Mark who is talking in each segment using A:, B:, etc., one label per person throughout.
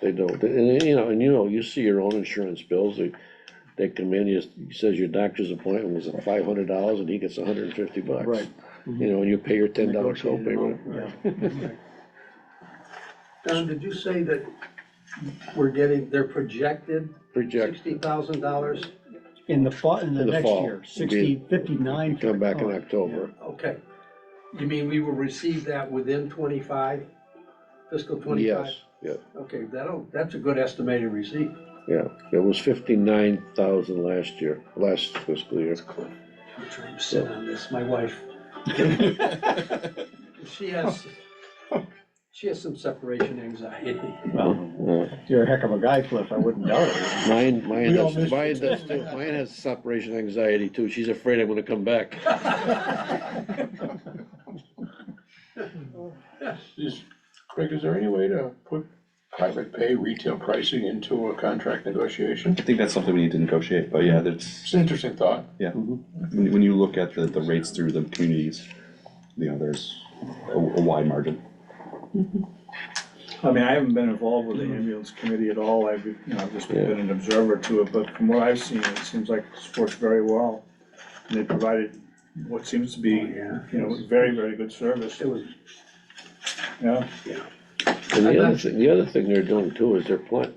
A: They don't, and, you know, and you know, you see your own insurance bills, they, they come in, you, he says your doctor's appointment was at five hundred dollars and he gets hundred and fifty bucks.
B: Right.
A: You know, and you pay your ten dollar
B: Negotiated
A: copay,
B: amount,
A: whatever.
B: yeah.
C: Don, did you say that we're getting, they're projected
A: project,
C: sixty thousand dollars?
B: In the fall, in the
A: In the
B: next
A: fall,
B: year,
A: it'd be-
B: sixty, fifty-nine.
A: come back in
B: Oh,
A: October.
C: Okay. You mean we will receive that within twenty-five, fiscal twenty-five?
A: Yes, yeah,
C: Okay, that'll, that's a good estimated receipt.
A: yeah, it was fifty-nine thousand last year, last fiscal year.
C: I'm trying to sit on this, my wife, she has, she has some separation anxiety.
B: Well,
A: Yeah.
B: You're a heck of a guy, Cliff, I wouldn't doubt it.
A: Uh, Mine, mine
B: We all
A: has,
B: missed
A: mine
B: it.
A: does too, mine has separation anxiety too, she's afraid I'm gonna come back.
D: Is, Craig, is there any way to put private pay retail pricing into a contract negotiation?
E: I think that's something we need to negotiate, but yeah, that's,
D: It's an interesting thought.
E: yeah,
B: Mm-hmm.
E: when, when you look at the, the rates through the communities, you know, there's a, a wide margin.
F: I mean, I haven't been involved with the
C: Mm.
F: ambulance committee at all, I've, you know, I've just been an observer to it, but from what I've seen, it seems like it's worked very well. And they provided what seems to be,
C: Oh, yeah.
F: you know, very, very good service,
C: It was,
F: yeah.
A: And
C: I'm
A: the other
C: not-
A: thing, the other thing they're doing too is they're pla-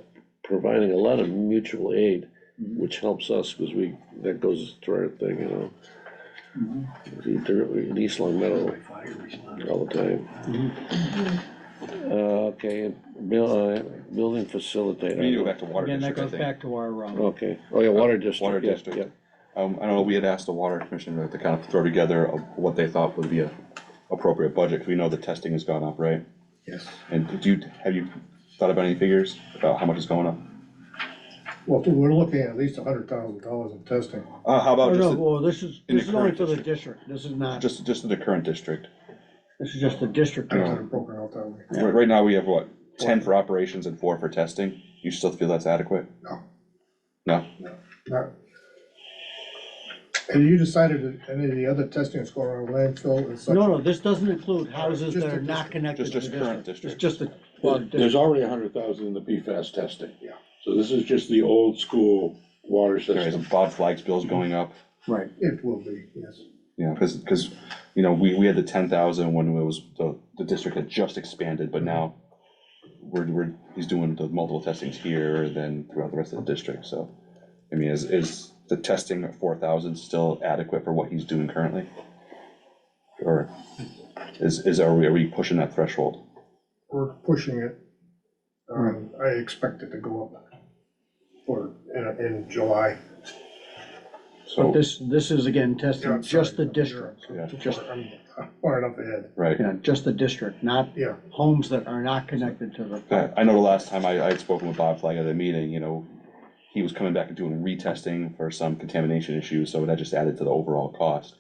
A: providing a lot of mutual aid, which helps us, cause we, that goes to our thing, you know. Either, in East Long Meadow
C: my fire response.
A: all the time. Uh, okay, bill, uh, building facilitator.
E: We need to go back to water
B: Again, that
E: district, I
B: goes
E: think.
B: back to our, um,
A: Okay, oh yeah, water district.
E: Water
A: yeah,
E: district. Um, I don't know, we had asked the water commissioner to kind of throw together a- what they thought would be a appropriate budget, 'cause we know the testing has gone up, right?
C: Yes.
E: And do you, have you thought about any figures about how much is going up?
G: Well, we're looking at at least a hundred thousand dollars in testing.
E: Uh, how
B: oh,
E: about
B: no,
E: just, the-
B: well, this is,
E: in the
B: this is only
E: current
B: for the district, this is not,
E: just, just in the current district?
B: this is just the district.
G: I don't have it broken out that way.
E: Right, right now, we have what, ten for operations and four for testing? You still feel that's adequate?
G: No.
E: No?
G: Not- Have you decided that any of the other testing that's going on landfill and such?
B: No, no, this doesn't include houses
G: Just
B: that
G: the
B: are not
G: district.
B: connected to
E: Just-
B: the
E: just current
B: district, it's just
E: district.
B: the. water
D: There's
B: district.
D: already a hundred thousand in the PFAS testing.
G: Yeah.
D: So this is just the old school water
E: There is,
D: system.
E: Bob Flag's bill's going up,
B: Right,
G: It will be, yes.
E: you know, cause, 'cause, you know, we, we had the ten thousand when it was, the, the district had just expanded, but now we're, we're, he's doing the multiple testings here, then throughout the rest of the district, so. I mean, is, is the testing at four thousand still adequate for what he's doing currently? Or is, is, are we, are we pushing that threshold?
G: We're pushing it. Um, I expect it to go up for, in, in July.
B: but
E: So,
B: this, this is again
G: Yeah,
B: testing
G: I'm
B: just the
G: sorry, you're-
B: district,
E: Yeah.
B: just,
G: I'm far enough ahead,
E: right,
B: you know, just the district, not
G: yeah.
B: homes that are not connected to the.
E: I, I know the last time I, I had spoken with Bob Flag at a meeting, you know, he was coming back and doing retesting for some contamination issues, so that just added to the overall cost.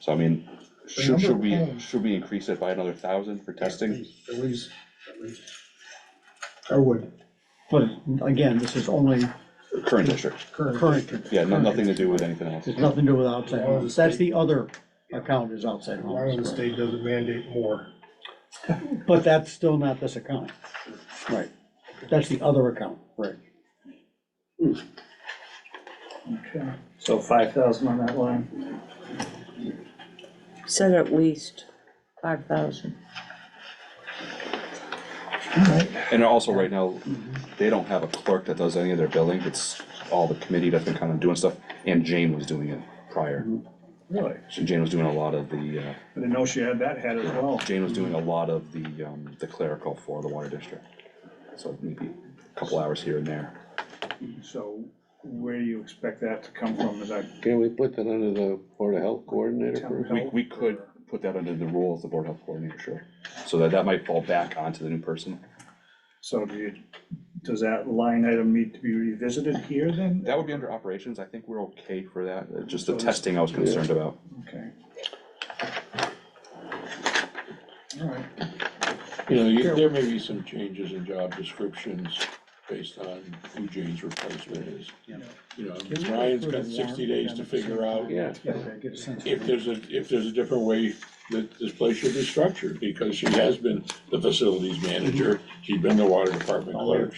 E: So I mean, should,
G: number
E: should
G: of
E: we,
G: homes-
E: should we increase it by another thousand for
G: At
E: testing?
G: least- At least, at least. I would,
B: But again, this is only
E: Current district,
G: current,
B: current.
E: yeah, no-
B: current.
E: nothing to do with anything else.
B: There's nothing to do with outside homes, that's the other account is outside
G: as long as the
B: homes,
G: state doesn't mandate more.
B: but that's still not this account. Right, that's the other account, right.
F: Okay. So five thousand on that line.
H: Said at least five thousand.
E: And also, right now, they don't have a clerk that does any of their billing, it's all the committee that's been kind of doing stuff, and Jane was doing it prior.
F: Really?
E: So Jane was doing a lot of the,
F: I didn't know she had that hat as
E: uh,
F: well.
E: Jane was doing a lot of the, um, the clerical for the water district. So maybe a couple hours here and there.
F: So where do you expect that to come from? Is that
A: Can we put that under the Board of Health Coordinator
F: town
A: first?
F: health?
E: We, we could put that under the rule of the board health coordinator, sure. So that, that might fall back onto the new person.
F: So do you, does that line item need to be revisited here then?
E: That would be under operations. I think we're okay for that. Uh, Just the
F: So this-
E: testing I was concerned about.
F: Okay. All right.
D: You know, you- there may be some changes in job descriptions based on who Jane's replacement is.
B: Yeah.
D: You know,
B: Can we
D: Ryan's
B: go through
D: got
B: the
D: sixty
B: warrant again
D: days to
B: at the
D: figure
B: same
D: out
A: Yeah,
B: Yeah, I get a sense.
D: if there's a, if there's a different way that this place should be structured, because she has been the facilities manager, she's been the water department clerk,